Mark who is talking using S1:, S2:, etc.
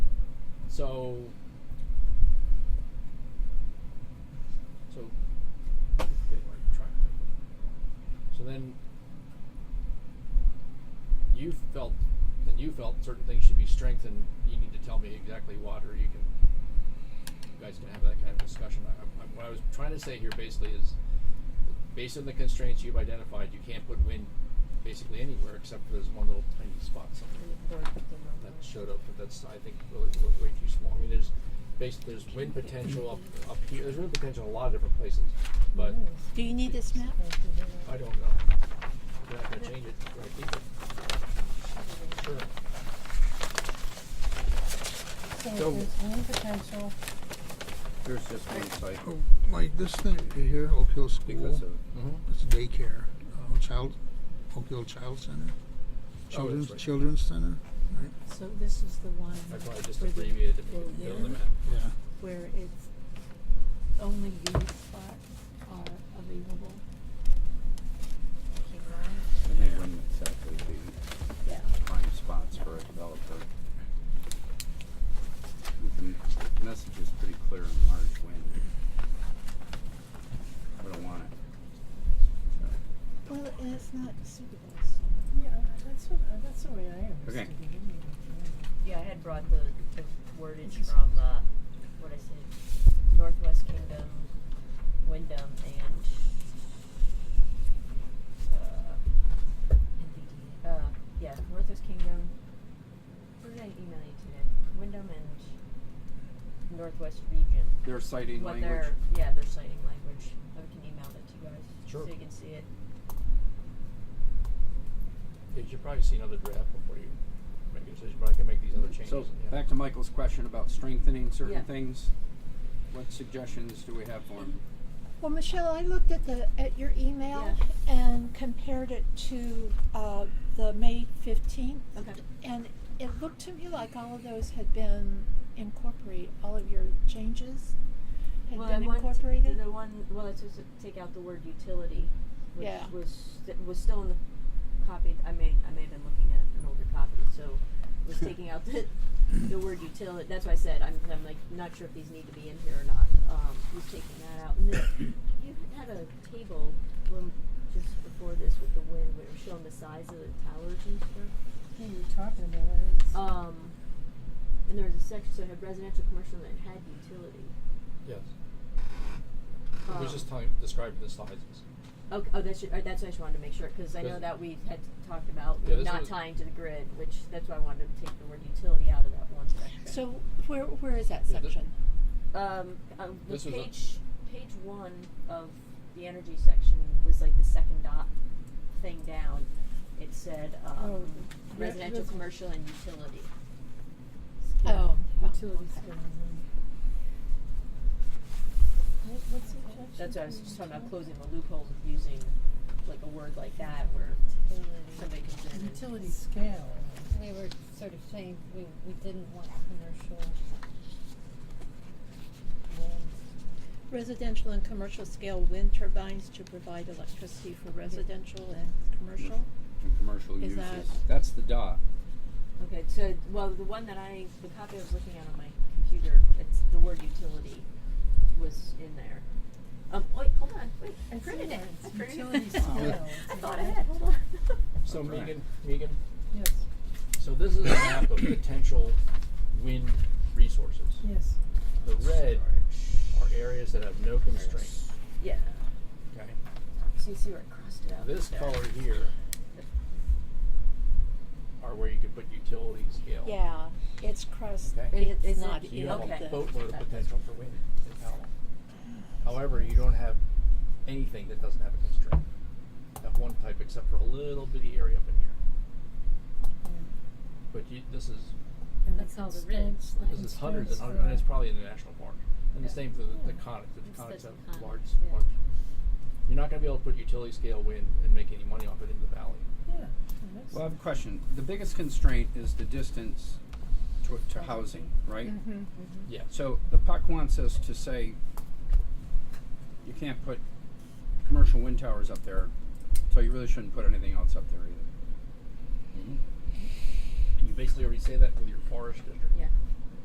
S1: So, so, so then you felt, then you felt certain things should be strengthened. You need to tell me exactly what, or you can, you guys can have that kind of discussion. I, I, what I was trying to say here basically is, based on the constraints you've identified, you can't put wind basically anywhere except for this one little tiny spot somewhere that showed up, but that's I think really w- way too small. I mean, there's basically there's wind potential up up here. There's wind potential in a lot of different places, but
S2: Do you need this map?
S1: I don't know. They're not gonna change it. Right Sure.
S3: So-
S4: So there's wind potential,
S3: There's just one cycle
S5: Oh, Like this thing right here, Oak Hill School, Mm-hmm.
S3: because of
S5: it's a daycare, uh, child, Oak Hill Child Center, Children's,
S1: right.
S5: Children's Center, right?
S2: So this is the one
S1: I probably just
S2: where the-
S1: abbreviated to
S2: where
S1: make it
S2: the-
S1: fill the map.
S5: Yeah.
S2: where it's only these are, are available.
S3: and they wouldn't exactly be
S2: Yeah.
S3: prime spots for a developer. The the message is pretty clear in large wind. We don't want it. So,
S2: Well, and it's not suitable.
S4: yeah, that's what, uh, that's the way I
S3: Okay.
S4: understood it anyway.
S6: Yeah, I had brought the, the wordage from, uh, what I said, Northwest Kingdom, Wyndham, and, uh, uh, yeah, Northwest Kingdom, what did I email you today? Wyndham and Northwest Region.
S3: Their citing
S6: What
S3: language,
S6: their, yeah, their citing language, I can email that to you guys,
S1: Sure.
S6: so you can see it.
S1: Yeah, you've probably seen another draft before you make a decision, but I can make these other changes.
S3: so
S1: yeah.
S3: back to Michael's question about strengthening
S6: Yeah.
S3: certain things. What suggestions do we have for him?
S2: Well, Michelle, I looked at the, at your email and compared it to, uh, the May fifteenth.
S6: Okay.
S2: And it looked to me like all of those had been incorporated, all of your changes had
S6: Well,
S2: been
S6: I wanted to-
S2: incorporated.
S6: The one, well, it's just to take out the word utility, which
S2: Yeah.
S6: was st- was still in the copy. I may I may have been looking at an older copy, so was taking out the the word utility. That's why I said I'm I'm like not sure if these need to be in here or not. Um, was taking that out, and then you had a table when, just before this with the wind, where it was showing the size of the towers and stuff.
S4: Yeah, you were talking about it. It's-
S6: Um, and there was a section so it had residential, commercial, and it had utility.
S1: yes,
S6: Um,
S1: it was just telling describing the sizes.
S6: Okay, oh, that's, ju- uh, that's why I just wanted to make sure, because I know
S1: Does-
S6: that we had talked about
S1: Yeah, this
S6: not
S1: is-
S6: tying to the grid, which, that's why I wanted to take the word utility out of that one section.
S2: So where, where is that
S1: Yeah, the-
S2: section?
S6: Um, um, the
S1: This was a-
S6: page, page one of the energy section was like the second dot thing down. It said, um,
S4: Oh, re-
S6: residential,
S4: resi-
S6: commercial, and utility.
S2: Oh, oh,
S4: Utility
S2: okay.
S4: scale. What, what's the objection?
S6: That's why I was
S4: to
S6: just talking about
S4: utility?
S6: closing the loopholes of using like a word like that where somebody comes in and.
S4: Utility scale.
S7: We were sort of saying we, we didn't want commercial wind.
S2: Residential and commercial scale wind turbines to provide electricity for residential and commercial.
S3: And commercial
S2: Is
S3: uses.
S2: that-
S3: That's the dot.
S6: Okay, so well, the one that I, the copy I was looking at on my computer, it's the word utility was in there. Um, wait, hold on, wait, I
S4: It's
S6: printed it.
S4: there,
S6: I
S4: it's
S6: printed
S4: utility
S6: it.
S4: scale.
S6: I thought ahead. Hold on.
S1: So
S3: Right.
S1: Megan, Megan,
S4: Yes,
S1: so this is a map of potential wind resources.
S4: yes.
S1: The red are areas that have no constraints.
S6: yeah.
S1: Okay.
S6: So you see where it crossed it out.
S1: This
S6: there.
S1: color here are where you could put utility scale.
S2: Yeah, it's cross,
S1: Okay.
S6: It-
S2: it's
S6: is it-
S2: not
S1: So you
S2: in
S1: have
S6: Okay.
S1: a
S2: the,
S1: boatload of potential for wind in Powell. However, you don't have anything that doesn't have a constraint. That one type, except for a little bitty area up in here. But you, this is
S4: And
S7: That's all the red
S4: constraints- the
S7: lines.
S1: this is hundreds and
S4: constraints
S1: hundreds, and it's
S4: for-
S1: probably in the national park. And the same for the, the conic.
S7: It's
S1: The conics
S7: the
S1: have
S7: conic,
S1: large,
S7: yeah.
S1: large. You're not going to be able to put utility scale wind and make any money off it in the valley.
S4: Yeah. that makes
S3: Well, I have a
S4: sense.
S3: question. The biggest constraint is the distance to, to housing, right?
S2: Mm-hmm.
S6: mm-hmm.
S1: Yeah.
S3: So the PUC wants us to say you can't put commercial wind towers up there, so you really shouldn't put anything else up there either.
S1: You basically already say that with your forest district.
S6: Yeah.